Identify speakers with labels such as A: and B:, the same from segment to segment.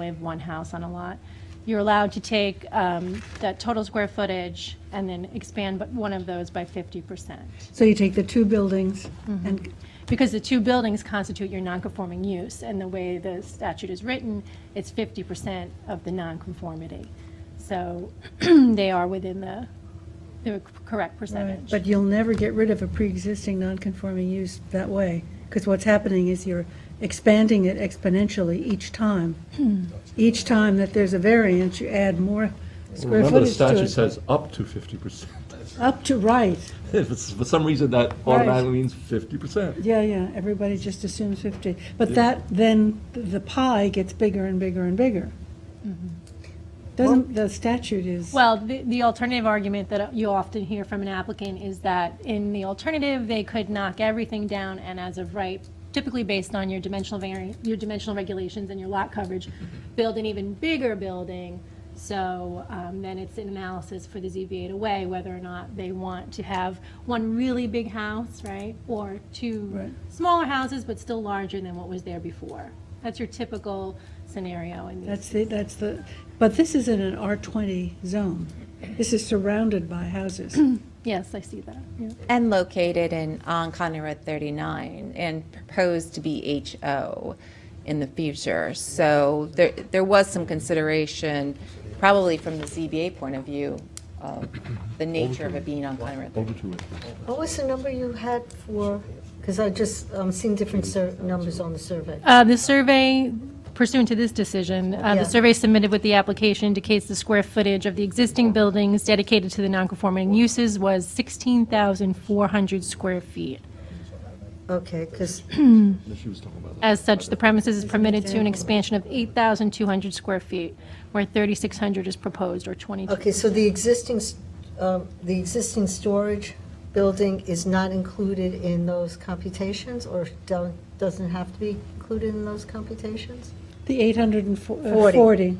A: We have one house on a lot. You're allowed to take um, that total square footage and then expand but one of those by 50%.
B: So you take the two buildings and,
A: Because the two buildings constitute your nonconforming use, and the way the statute is written, it's 50% of the nonconformity. So they are within the, the correct percentage.
B: but you'll never get rid of a pre-existing non-conforming use that way. Because what's happening is you're expanding it exponentially each time. Each time that there's a variance, you add more square
C: Remember, the
B: footage
C: statute
B: to it.
C: says up to fifty percent.
B: Up to, right,
C: If it's, for some reason, that automatically means fifty percent.
B: yeah, yeah, everybody just assumes 50. But that, then the pie gets bigger and bigger and bigger. Doesn't, the statute is,
A: Well, the, the alternative argument that you often hear from an applicant is that in the alternative, they could knock everything down and as of right, typically based on your dimensional vari, your dimensional regulations and your lot coverage, build an even bigger building. So, um, then it's an analysis for the ZBA to weigh whether or not they want to have one really big house, right? Or two
B: Right.
A: smaller houses, but still larger than what was there before. That's your typical scenario in these.
B: that's the, that's the, but this is in an R20 zone. This is surrounded by houses.
A: Yes, I see that, yeah.
D: And located in, on Conner Road 39, and proposed to be HO in the future. So there, there was some consideration, probably from the ZBA point of view, of the nature of it being on Conner Road 39.
C: Over to it.
E: What was the number you had for, because I just, I'm seeing different sur- numbers on the survey.
A: Uh, The survey pursuant to this decision, uh,
E: Yeah.
A: the survey submitted with the application indicates the square footage of the existing buildings dedicated to the nonconforming uses was 16,400 square feet.
E: Okay, because,
C: She was talking about
A: As such, the premises is permitted to an expansion of 8,200 square feet, where 3,600 is proposed, or 22.
E: okay, so the existing, s- um, the existing storage building is not included in those computations, or don't- doesn't have to be included in those computations?
B: The uh,
E: Forty.
B: 840.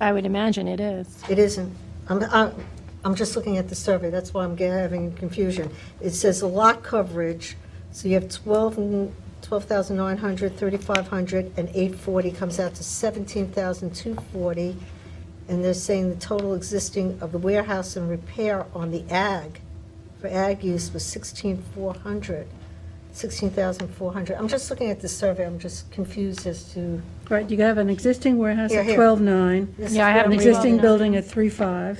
A: I would imagine it is.
E: It isn't. I'm, I'm, I'm just looking at the survey, that's why I'm ge- having confusion. It says a lot coverage, so you have 12, n- 12,900, 3,500, and 840 comes out to 17,240. And they're saying the total existing of the warehouse and repair on the ag, for ag use was 16,400, 16,400. I'm just looking at the survey, I'm just confused as to.
B: Right, you have an existing warehouse
E: Here,
B: at
E: here.
B: 12.9,
E: this is
A: Yeah, I
E: what
A: have
B: an
E: I'm
A: the
E: reading.
B: existing
A: 12.9.
B: building at 3.5,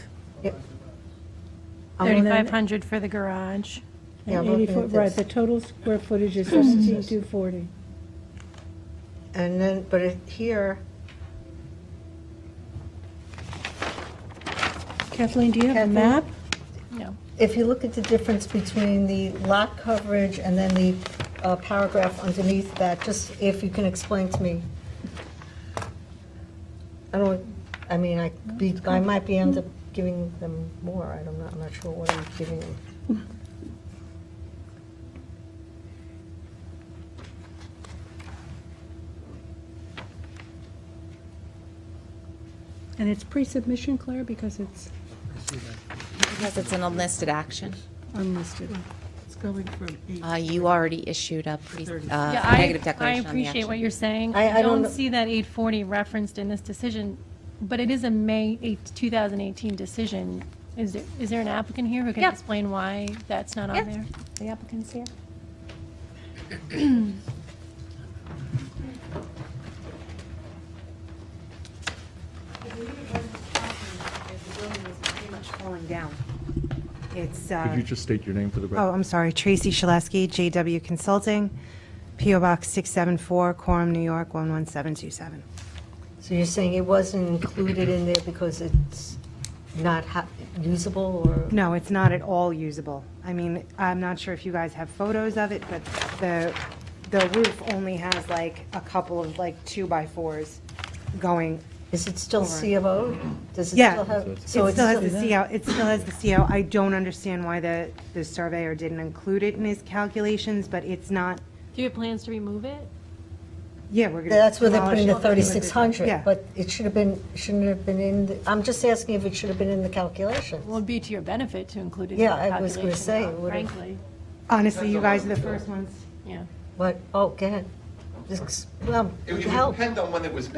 E: I'm on-
A: 3,500 for the garage.
E: Yeah, I'm
B: and
E: looking
B: 80 foot,
E: at
B: right,
E: this.
B: the total square footage is 16,240.
E: And then, but it- here,
B: Kathleen, do you have a
E: Kathleen?
B: map?
A: No.
E: if you look at the difference between the lot coverage and then the uh, paragraph underneath that, just if you can explain to me. I don't, I mean, I could be, I might be end up giving them more, I don't know, I'm not sure what I'm giving them.
B: And it's pre-submission, Claire, because it's
D: Because it's an unlisted action.
B: unlisted.
F: It's going from eight.
D: Uh, You already issued a pre- uh,
A: Yeah, I-
D: negative declaration
A: I
D: on the
A: appreciate what
D: action.
A: you're saying. I
E: I- I don't
A: don't
E: know-
A: see that 840 referenced in this decision, but it is a May 8, 2018 decision. Is there, is there an applicant here who can
D: Yeah.
A: explain why that's not on
D: Yeah.
A: there?
D: The applicant's here.
G: The building was pretty much falling down. It's,
C: Could
G: uh,
C: you just state your name for the
G: oh,
C: record?
G: I'm sorry, Tracy Shaleski, JW Consulting, PO Box 674, Quorum, New York, 11727.
E: So you're saying it wasn't included in there because it's not ha- usable or?
G: No, it's not at all usable. I mean, I'm not sure if you guys have photos of it, but the, the roof only has like a couple of like two-by-fours going
E: Is it still C of O? Does it
G: Yeah.
E: still have?
G: It
E: so
G: still
E: it's
G: has the CO, it still has the CO. I don't understand why the, the surveyor didn't include it in his calculations, but it's not,
A: Do you have plans to remove it?
G: yeah, we're gonna.
E: That's where they're putting the
G: demolish it.
E: 3,600,
G: Oh, Yeah.
E: but it should have been, shouldn't it have been in, the- I'm just asking if it should have been in the
A: Well,
E: calculations.
A: it'd be to your benefit to include it in the
E: Yeah, I was
A: calculation,
E: gonna say, it
A: though,
E: would've-
A: frankly.
G: Honestly, you guys are the first ones.
A: Yeah.
E: But, oh, go ahead. Just, well,
H: It would
E: help.
H: depend on when it was